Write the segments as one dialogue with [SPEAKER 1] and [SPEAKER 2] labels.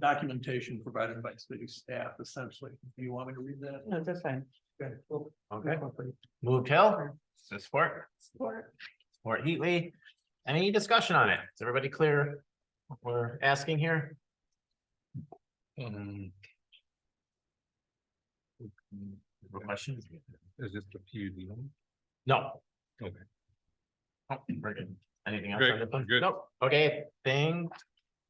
[SPEAKER 1] documentation provided by city staff essentially. Do you want me to read that?
[SPEAKER 2] No, that's fine.
[SPEAKER 1] Okay, cool.
[SPEAKER 3] Okay, moved Hill, support,
[SPEAKER 2] Support.
[SPEAKER 3] support Heatley. Any discussion on it? Is everybody clear? what We're asking here?
[SPEAKER 4] Um,
[SPEAKER 3] No Questions?
[SPEAKER 4] is this the PUD one?
[SPEAKER 3] No.
[SPEAKER 4] Okay.
[SPEAKER 3] Oh, We're good. Anything else?
[SPEAKER 4] Good,
[SPEAKER 3] on this one?
[SPEAKER 4] good.
[SPEAKER 3] Nope. Okay, thing.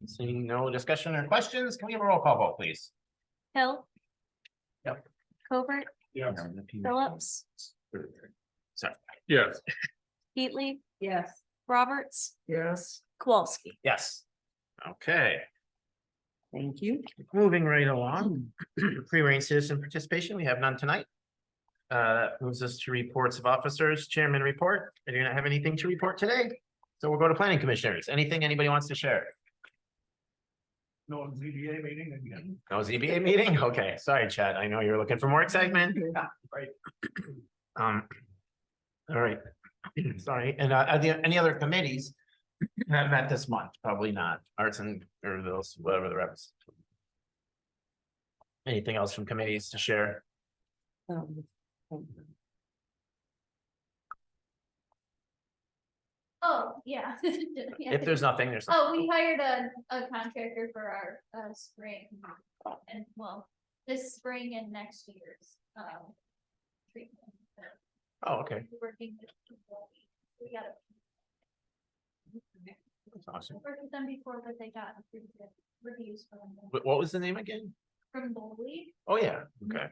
[SPEAKER 3] Seeing no discussion or questions, can we have a roll call vote, please?
[SPEAKER 5] Hill.
[SPEAKER 3] Yep.
[SPEAKER 5] Covert,
[SPEAKER 4] Yes.
[SPEAKER 5] Phillips,
[SPEAKER 3] Sorry,
[SPEAKER 4] Yes,
[SPEAKER 5] Heatley,
[SPEAKER 2] Yes.
[SPEAKER 5] Roberts,
[SPEAKER 2] Yes.
[SPEAKER 5] Kowalski.
[SPEAKER 3] yes. Okay.
[SPEAKER 2] Thank you.
[SPEAKER 3] Moving right along, pre-range citizen participation, we have none tonight. Uh, that moves us to reports of officers, chairman report. I do not have anything to report today. So we'll go to planning commissioners. Anything anybody wants to share?
[SPEAKER 1] No ZBA meeting again.
[SPEAKER 3] No ZBA E meeting? Okay, sorry, Chad. I know you're looking for more excitement.
[SPEAKER 1] Right.
[SPEAKER 3] Um. All right, sorry. And uh, are there any other committees? Not met this month, probably not. Arts and or those, whatever the reps. Anything else from committees to share?
[SPEAKER 2] Um,
[SPEAKER 6] Oh, yeah. Yeah.
[SPEAKER 3] If there's nothing, there's.
[SPEAKER 6] Oh, we hired a, a contractor for our, uh, spring and well, this spring and next year's, um. Treatment.
[SPEAKER 3] Oh, okay.
[SPEAKER 6] We're Working with people. We gotta
[SPEAKER 3] That's awesome.
[SPEAKER 6] work with them before, but they got pretty good reviews from, them.
[SPEAKER 3] What, what was the name again?
[SPEAKER 6] from the league.
[SPEAKER 3] Oh, yeah, okay.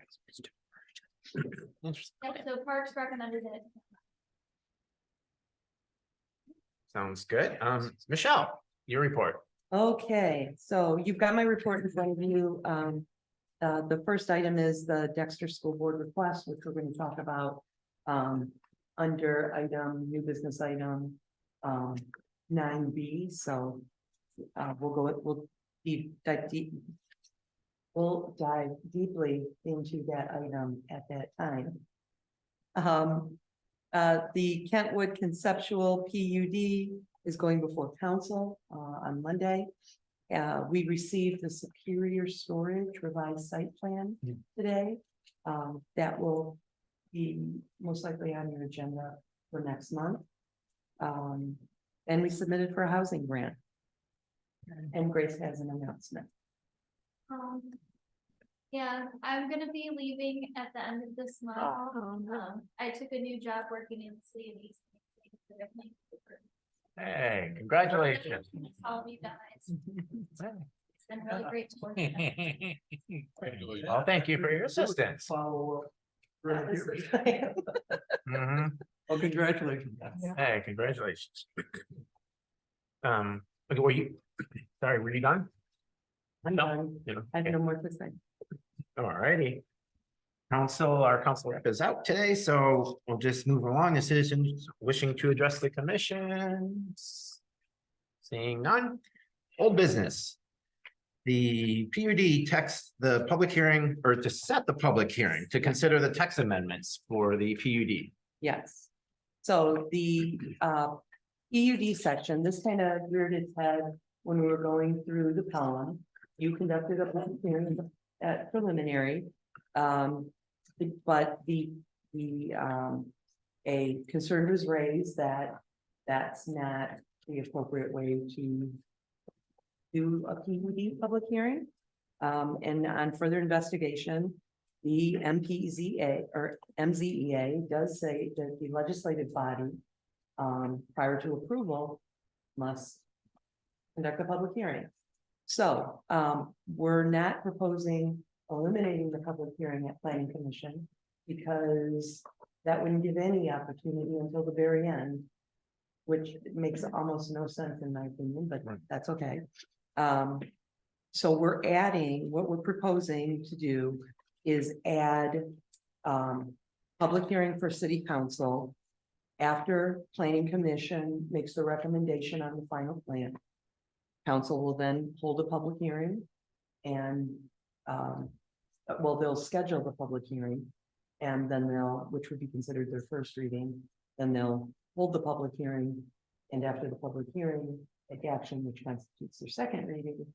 [SPEAKER 3] Interesting.
[SPEAKER 6] Yep, so Parks recommended it.
[SPEAKER 3] Sounds good. Um, Michelle, your report.
[SPEAKER 2] Okay, so you've got my report in front of you. Um, uh, the first item is the Dexter School Board request, which we're going to talk about. Um, under item, new business item, um, nine B, so. Uh, we'll go, we'll deep, dive deep. We'll dive deeply into that item at that time. Um, uh, the Kentwood Conceptual P U D is going before council uh on Monday. Uh, we received the Superior Storage revised site plan
[SPEAKER 3] Hmm.
[SPEAKER 2] today. Um, that will be most likely on your agenda for next month. Um, and we submitted for a housing grant. And Grace has an announcement.
[SPEAKER 6] Um, yeah, I'm gonna be leaving at the end of this month. Um, I took a new job working in the city of East. Lansing, so I think it's-
[SPEAKER 3] Hey, congratulations.
[SPEAKER 6] All of you guys, it's been really great to work. with.
[SPEAKER 1] Congratulations.
[SPEAKER 3] Well, thank you for your assistance.
[SPEAKER 2] Follow up.
[SPEAKER 1] Right here.
[SPEAKER 3] Mhm.
[SPEAKER 1] Oh, congratulations.
[SPEAKER 3] Hey, congratulations. Um, okay, were you, sorry, were you done?
[SPEAKER 2] I'm
[SPEAKER 3] No.
[SPEAKER 2] done.
[SPEAKER 3] You know,
[SPEAKER 2] I have
[SPEAKER 3] okay.
[SPEAKER 2] no more to say.
[SPEAKER 3] Alrighty. Council, our council rep is out today, so we'll just move along. The citizens wishing to address the commission. Seeing none, old business. The PUD text, the public hearing, or to set the public hearing, to consider the text amendments for the PUD.
[SPEAKER 2] Yes. So the uh EUD section, this kind of reared its head when we were going through the column. You conducted a public hearing at preliminary. Um, but the, the um, a concern was raised that that's not the appropriate way to do a PUD public hearing. Um, and on further investigation, the MPZA or MZEA E does say that the legislative body um, prior to approval must conduct a public hearing. So, um, we're not proposing eliminating the public hearing at planning commission because that wouldn't give any opportunity until the very end, which makes almost no sense in my opinion, but
[SPEAKER 3] Right.
[SPEAKER 2] that's okay. Um, so we're adding, what we're proposing to do is add um, public hearing for city council after planning commission makes the recommendation on the final plan. Council will then hold a public hearing and, um, uh, well, they'll schedule the public hearing. And then they'll, which would be considered their first reading, then they'll hold the public hearing. And after the public hearing, take action which constitutes their second reading.